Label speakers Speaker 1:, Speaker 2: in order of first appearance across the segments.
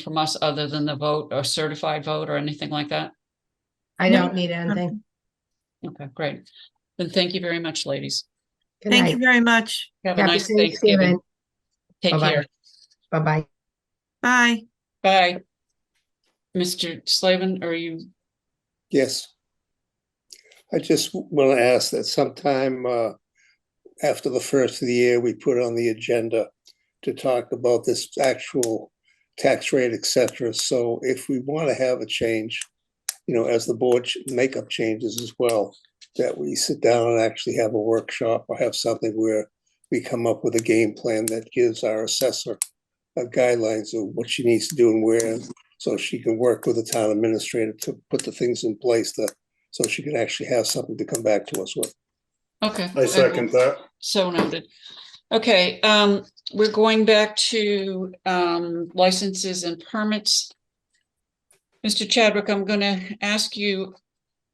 Speaker 1: from us other than the vote or certified vote or anything like that?
Speaker 2: I
Speaker 3: No.
Speaker 2: don't need anything.
Speaker 1: Okay, great. Then thank you very much, ladies.
Speaker 2: Good
Speaker 3: Thank you
Speaker 2: night.
Speaker 3: very much.
Speaker 1: Have a
Speaker 2: Happy
Speaker 1: nice Thanksgiving.
Speaker 2: Thanksgiving.
Speaker 1: Take
Speaker 2: Bye-bye.
Speaker 1: care.
Speaker 2: Bye-bye.
Speaker 3: Bye.
Speaker 1: Bye. Mr. Slavin, are you,
Speaker 4: Yes. I just want to ask that sometime uh, after the first of the year, we put on the agenda to talk about this actual tax rate, et cetera. So if we want to have a change, you know, as the board ch- make up changes as well, that we sit down and actually have a workshop or have something where we come up with a game plan that gives our assessor uh, guidelines of what she needs to do and where, so she can work with the town administrator to put the things in place that, so she can actually have something to come back to us with.
Speaker 1: okay.
Speaker 5: I second that.
Speaker 1: So noted. Okay, um, we're going back to, um, licenses and permits. Mr. Chadwick, I'm gonna ask you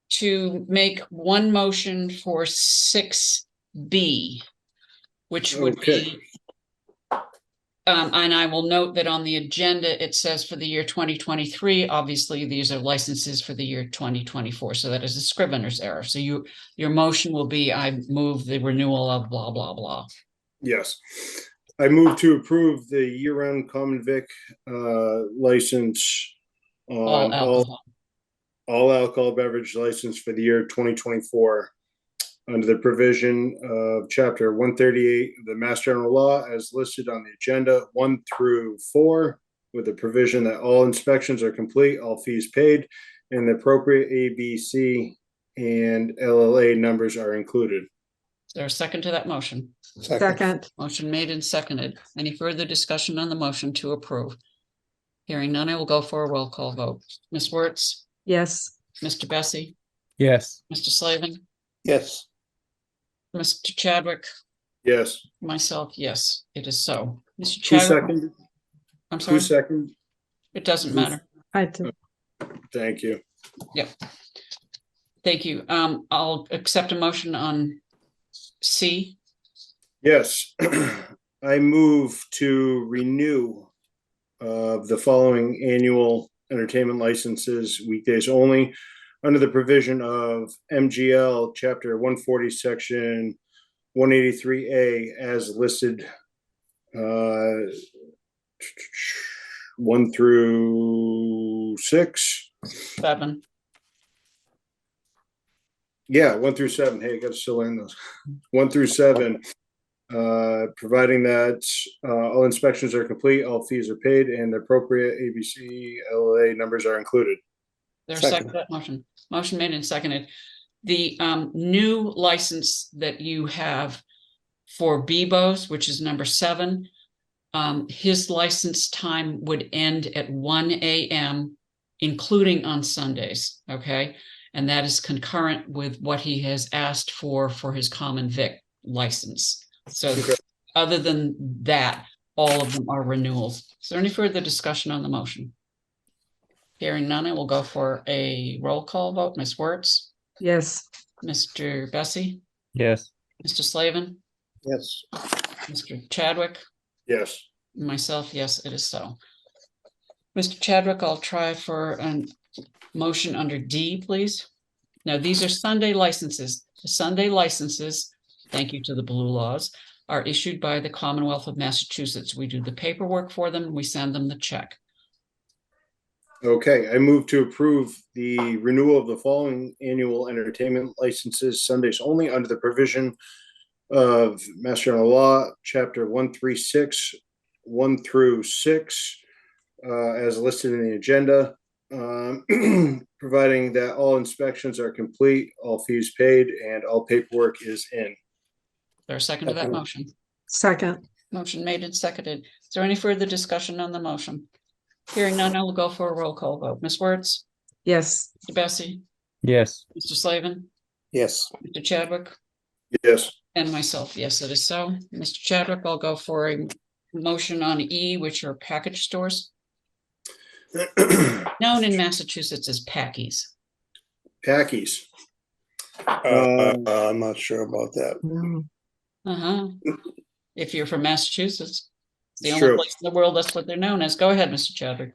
Speaker 1: to make one motion for six B, which would be.
Speaker 4: Okay.
Speaker 1: Um, and I will note that on the agenda, it says for the year twenty twenty-three, obviously, these are licenses for the year twenty twenty-four, so that is a scrivener's error. So you, your motion will be, I move the renewal of blah, blah, blah.
Speaker 5: Yes. I move to approve the year-round common vic uh, license
Speaker 1: All
Speaker 5: on all,
Speaker 1: alcohol.
Speaker 5: all alcohol beverage license for the year 2024 under the provision of chapter 138 of the Mass General Law as listed on the agenda, one through four, with the provision that all inspections are complete, all fees paid, and the appropriate ABC and LLA numbers are included.
Speaker 1: Is there a second to that motion?
Speaker 4: Second,
Speaker 3: Second.
Speaker 1: Motion made and seconded. Any further discussion on the motion to approve? Hearing none, I will go for a roll call vote. Ms. Wertz,
Speaker 3: Yes.
Speaker 1: Mr. Bessie,
Speaker 6: yes,
Speaker 1: Mr. Slavin,
Speaker 4: yes,
Speaker 1: Mr. Chadwick,
Speaker 5: Yes.
Speaker 1: myself, yes, it is so. Mr.
Speaker 5: Who
Speaker 1: Chadwick,
Speaker 5: seconded?
Speaker 1: I'm
Speaker 5: Who
Speaker 1: sorry,
Speaker 5: seconded?
Speaker 1: it doesn't matter.
Speaker 3: I do.
Speaker 5: Thank you.
Speaker 1: Thank you. Um, I'll accept a motion on C.
Speaker 5: Yes, I move to renew uh, the following annual entertainment licenses weekdays only under the provision of MGL Chapter 140, Section 183A as listed. uh, One through six.
Speaker 1: Seven.
Speaker 5: Yeah, one through seven. Hey, I gotta still learn those. One through seven. Uh, providing that uh, all inspections are complete, all fees are paid, and the appropriate ABC LA numbers are included.
Speaker 1: There's a second
Speaker 4: Second.
Speaker 1: to that motion. Motion made and seconded. The um new license that you have for Bebo's, which is number seven. Um, his license time would end at one AM, including on Sundays, okay? And that is concurrent with what he has asked for for his common vic license. So
Speaker 5: Okay.
Speaker 1: other than that, all of them are renewals. Is there any further discussion on the motion? Hearing none, I will go for a roll call vote. Ms. Wertz,
Speaker 3: Yes.
Speaker 1: Mr. Bessie,
Speaker 6: yes,
Speaker 1: Mr. Slavin,
Speaker 4: yes,
Speaker 1: Mr. Chadwick,
Speaker 5: Yes,
Speaker 1: myself, yes, it is so. Mr. Chadwick, I'll try for a motion under D, please. Now, these are Sunday licenses. The Sunday licenses, thank you to the blue laws, are issued by the Commonwealth of Massachusetts. We do the paperwork for them, we send them the check.
Speaker 5: okay, I move to approve the renewal of the following annual entertainment licenses Sundays only under the provision of Mass General Law, Chapter 136, 1 through 6, uh, as listed in the agenda. um, Providing that all inspections are complete, all fees paid, and all paperwork is in.
Speaker 1: There a second to that
Speaker 4: Second.
Speaker 1: motion?
Speaker 3: Second.
Speaker 1: Motion made and seconded. Is there any further discussion on the motion? Hearing none, I will go for a roll call vote. Ms. Wertz,
Speaker 3: Yes.
Speaker 1: Mr. Bessie,
Speaker 6: yes.
Speaker 1: Mr. Slavin,
Speaker 4: yes.
Speaker 1: Mr. Chadwick,
Speaker 5: Yes.
Speaker 1: and myself. Yes, it is so. Mr. Chadwick, I'll go for a motion on E, which are package stores known in Massachusetts as Packies.
Speaker 5: Packies.
Speaker 4: Uh, I'm not sure about that.
Speaker 3: No.
Speaker 1: Uh-huh. If you're from Massachusetts, it's the
Speaker 5: True.
Speaker 1: only place in the world that's what they're known as. Go ahead, Mr. Chadwick.